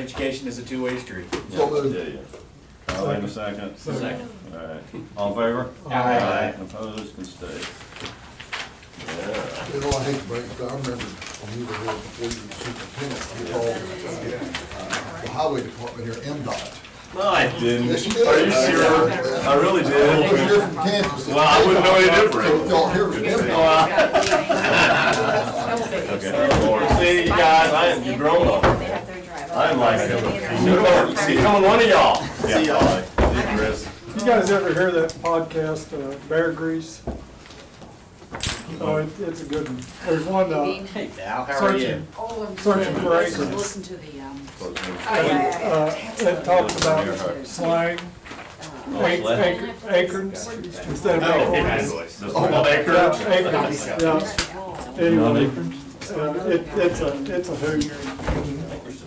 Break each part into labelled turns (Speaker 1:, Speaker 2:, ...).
Speaker 1: education is a two-way street.
Speaker 2: So moved.
Speaker 3: Yeah, yeah. Charlie in a second.
Speaker 1: Second.
Speaker 3: All right, all in favor?
Speaker 1: Aye.
Speaker 3: Opposed, can stay. Yeah,
Speaker 2: You know, I hate to break it, but I remember when you were here before you were superintendent, you called, uh, the highway department here, MDOT.
Speaker 3: no, I didn't.
Speaker 2: Yes, you did.
Speaker 3: Are you sure? I really
Speaker 2: Well,
Speaker 3: did.
Speaker 2: You're from Kansas.
Speaker 3: Well, I wouldn't know any different.
Speaker 2: Y'all here was MDOT.
Speaker 3: Okay, see, you guys, I am a grown up. I am like, a- see, coming one of y'all. See y'all. See you, Chris.
Speaker 4: You guys ever hear that podcast, uh, Bear Grease? Oh, it- it's a good one. There's one, uh,
Speaker 1: Hey, Val, how are you?
Speaker 4: searching, searching for acres.
Speaker 5: Oh, Listen to the, um,
Speaker 4: And, uh, it talks about slang, ac- ac- acorns, instead of acorns.
Speaker 3: This is
Speaker 2: Oh,
Speaker 3: my
Speaker 4: Yeah,
Speaker 3: acre.
Speaker 4: acorns, yeah.
Speaker 3: Not
Speaker 4: Anyway,
Speaker 3: acres?
Speaker 4: uh, it, it's a, it's a hoot.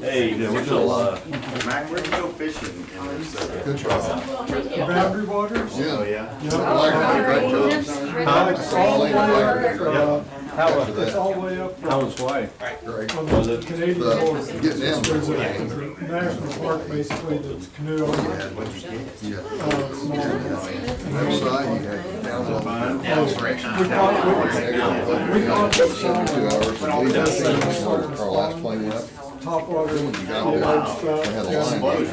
Speaker 3: Hey, yeah, we're still, uh,
Speaker 6: Mac, where'd you go fishing in this, uh,
Speaker 2: Good job.
Speaker 4: Boundary Waters?
Speaker 6: oh,
Speaker 2: Yeah.
Speaker 6: yeah?
Speaker 4: Yeah.
Speaker 2: I like it. Great job.
Speaker 4: Uh, It's all,
Speaker 2: Solid
Speaker 4: the way,
Speaker 2: water.
Speaker 4: uh, it's all the way up
Speaker 3: how was Hawaii?
Speaker 2: Great.
Speaker 4: from
Speaker 3: Was
Speaker 4: the
Speaker 3: it-
Speaker 4: Canadian border.
Speaker 2: The, getting them.
Speaker 4: There's a national park basically that's canoe.
Speaker 6: What'd you get?
Speaker 2: Yeah.
Speaker 4: uh, small-
Speaker 3: Oh,
Speaker 2: Left side, you had down on the-
Speaker 4: We caught, we, we caught
Speaker 2: Two hours,
Speaker 4: this,
Speaker 2: you leave that thing, our last plane went up.
Speaker 3: Oh,
Speaker 4: top water,
Speaker 2: When you got
Speaker 4: all
Speaker 2: there,
Speaker 4: that stuff.
Speaker 2: They had a line.